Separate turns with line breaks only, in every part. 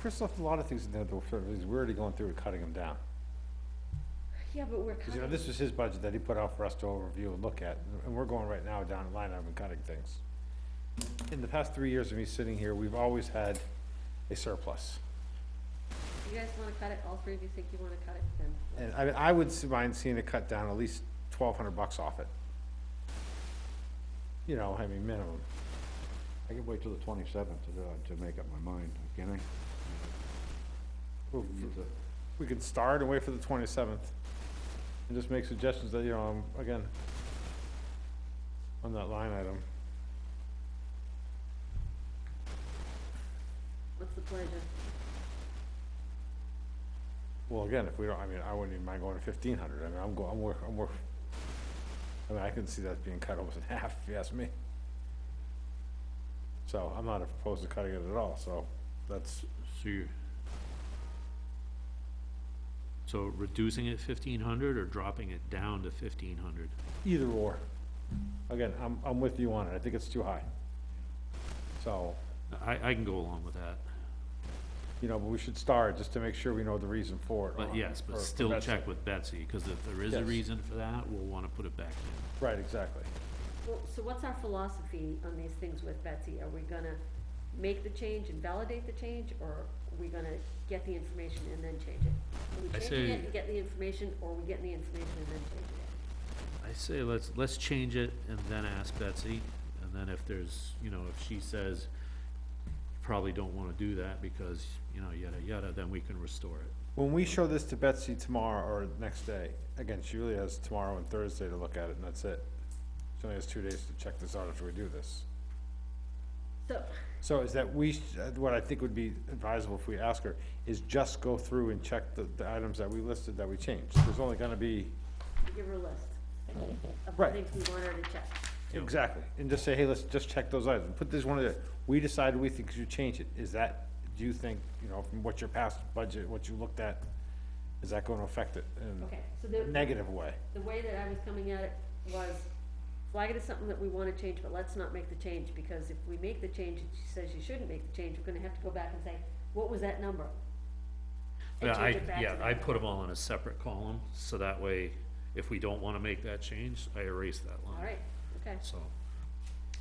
Chris left a lot of things in there that were, we're already going through and cutting them down.
Yeah, but we're
Because, you know,
cutting,
this was his budget that he put out for us to overview and look at, and we're going right now down the line item and cutting things. In the past three years of me sitting here, we've always had a surplus.
you guys wanna cut it, all three of you think you wanna cut it, then,
And I, mean, I would s- mind seeing it cut down at least twelve hundred bucks off it. You know, I mean, minimum.
I can wait till the twenty-seventh
uh,
to, do it, to make up my mind, can I?
Well,
We need to-
We could start and wait for the twenty-seventh, and just make suggestions that, you know, um, again, on that line item.
what's the pleasure?
Well, again, if we don't, I mean, I wouldn't even mind going to fifteen hundred, I mean, I'm going, I'm worth, I'm worth, I mean, I can see that being cut almost in half, if you ask me. So, I'm not opposed to cutting it at all, so, that's,
So you're. So reducing it fifteen hundred or dropping it down to fifteen hundred?
either or. Again, I'm, I'm with you on it, I think it's too high. So,
I, I can go along with that,
you know, but we should start, just to make sure we know the reason for it.
but
or-
yes,
or-
but
or
still
that's-
check with Betsy, cause if there is a
Yes.
reason for that, we'll wanna put it back in.
Right, exactly.
Well, so what's our philosophy on these things with Betsy? Are we gonna make the change and validate the change, or are we gonna get the information and then change it? Are we
I
changing it
say-
and get the information, or are we getting the information and then changing it?
I say let's, let's change it and then ask Betsy, and then if there's, you know, if she says, you probably don't wanna do that because, you know, yada, yada, then we can restore it.
When we show this to Betsy tomorrow or next day, again, she really has tomorrow and Thursday to look at it and that's it. She only has two days to check this out after we do this.
So,
So is that we, sh- uh, what I think would be advisable if we ask her, is just go through and check the, the items that we listed that we changed. There's only gonna be,
we give her a list of the
Right.
things we want her to check.
exactly, and just say, hey, let's just check those items. Put this one in there. We decided we think you should change it. Is that, do you think, you know, from what your past budget, what you looked at, is that gonna affect it
Okay, so
in a
the,
negative way?
the way that I was coming at it was, flag it as something that we wanna change, but let's not make the change, because if we make the change, and she says you shouldn't make the change, we're gonna have to go back and say, what was that number? And
Yeah, I,
change it back to
yeah,
that.
I put them all in a separate column, so that way, if we don't wanna make that change, I erase that line.
All right, okay.
So,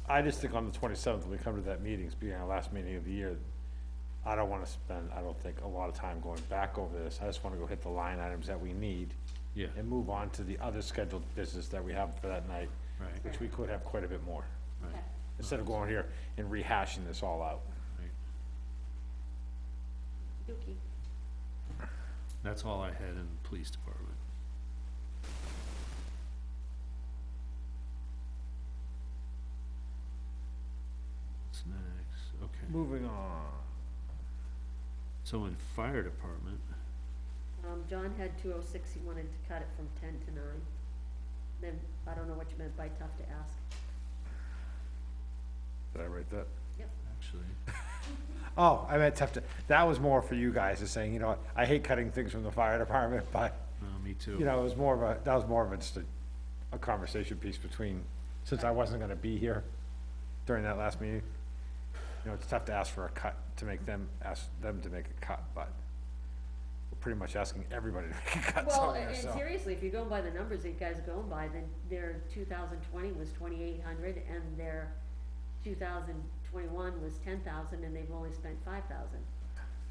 I just think on the twenty-seventh, when we come to that meeting, it's being our last meeting of the year, I don't wanna spend, I don't think, a lot of time going back over this, I just wanna go hit the line items that we need
yeah,
and move on to the other scheduled business that we have for that night,
right, right.
which we could have quite a bit more, instead of going here and rehashing this all out.
right.
Dookie.
That's all I had in the police department. What's next? Okay,
Moving on.
so in fire department,
Um, John had two oh six, he wanted to cut it from ten to nine. Then, I don't know what you meant by tough to ask.
Did I write that?
actually,
Oh, I meant tough to, that was more for you guys, is saying, you know, what, I hate cutting things from the fire department, but
no, uh, me too.
You know, it was more of a, that was more of a, just a, a conversation piece between, since I wasn't gonna be here during that last meeting. You know, it's tough to ask for a cut, to make them, ask them to make a cut, but we're pretty much asking everybody to make a cut
Well, a-
somewhere,
and
so.
seriously, if you're going by the numbers that you guys are going by, then their two thousand twenty was twenty-eight hundred, and their two thousand twenty-one was ten thousand, and they've only spent five thousand.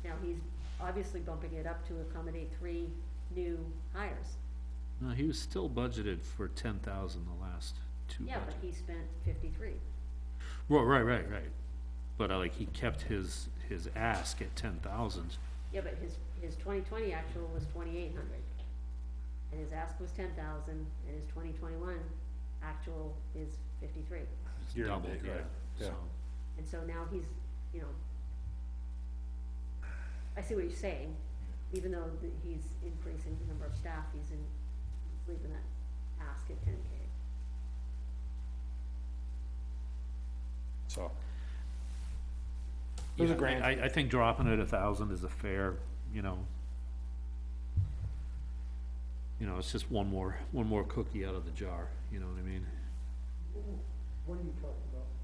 Now, he's obviously bumping it up to accommodate three new hires.
No, Uh, he was still budgeted for ten thousand the last two
Yeah,
budgets.
but he spent fifty-three.
Well, right, right, right. But I like, he kept his, his ask at ten thousand.
Yeah, but his, his twenty twenty actual was twenty-eight hundred. And his ask was ten thousand, and his twenty twenty-one actual is fifty-three.
Year to
doubled,
date,
yeah,
right, yeah.
so.
And so now he's, you know, I see what you're saying, even though that he's increasing the number of staff, he's in, he's leaving that ask at ten K.
So. It was a
Yeah, I-
grand,
I, I think dropping it a thousand is a fair, you know. You know, it's just one more, one more cookie out of the jar, you know what I mean?
What are you talking about?